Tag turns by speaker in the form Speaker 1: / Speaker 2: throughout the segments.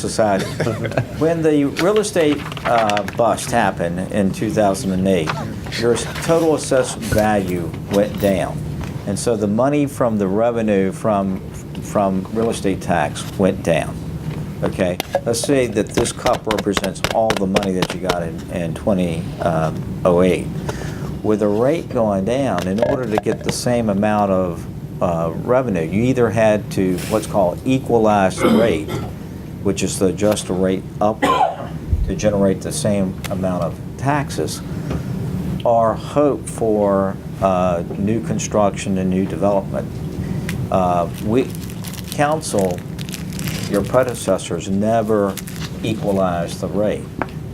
Speaker 1: society. When the real estate uh, bust happened in 2008, your total assessed value went down. And so the money from the revenue from, from real estate tax went down. Okay, let's say that this cup represents all the money that you got in, in 2008. With the rate going down, in order to get the same amount of uh, revenue, you either had to, what's called equalize the rate, which is to adjust the rate up to generate the same amount of taxes, or hope for uh, new construction and new development. Uh, We, council, your predecessors never equalized the rate.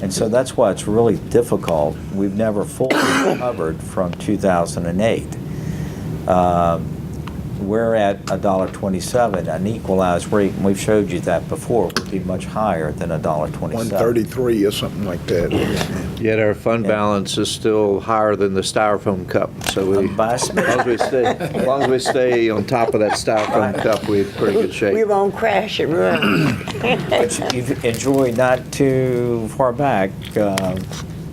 Speaker 1: And so that's why it's really difficult. We've never fully recovered from 2008 Um, we're at $1.27, an equalized rate, and we've showed you that before, would be much higher than $1.27.
Speaker 2: 133 or something like that.
Speaker 3: Yet our fund
Speaker 1: Yeah.
Speaker 3: balance is still higher than the styrofoam cup, so we,
Speaker 1: Um, by-
Speaker 3: as long as we stay, as long as we stay on top of that styrofoam cup, we're in pretty good
Speaker 4: We
Speaker 3: shape.
Speaker 4: won't crash and run.
Speaker 1: But you- you've enjoyed not too far back, um,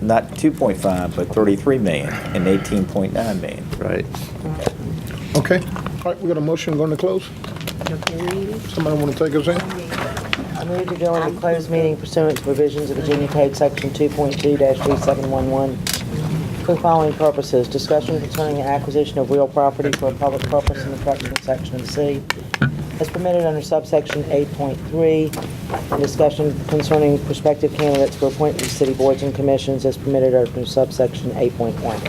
Speaker 1: not 2.5, but 33 million and 18.9 million.
Speaker 3: Right.
Speaker 2: Okay, all right, we got a motion going to close? Somebody want to take us in?
Speaker 4: I move to go into closed meeting pursuant to provisions of Virginia Code Section 2.2-3711 for the following purposes: discussion concerning the acquisition of real property for a public purpose in the correctional section of C as permitted under subsection 8.3, and discussion concerning prospective candidates for appointment to city boards and commissions as permitted under subsection 8.1.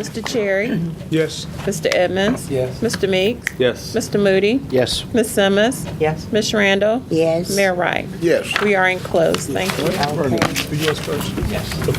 Speaker 5: Mr. Cherry?
Speaker 2: Yes.
Speaker 5: Mr. Edmonds? Yes. Mr. Meeks?
Speaker 6: Yes.
Speaker 5: Mr. Moody?
Speaker 3: Yes.
Speaker 5: Ms. Simmons?
Speaker 4: Yes?
Speaker 5: Ms. Randall?
Speaker 4: Yes.
Speaker 5: Mayor Wright?
Speaker 2: Yes.
Speaker 5: We are in close. Thank you.
Speaker 2: Bernie, you yours first.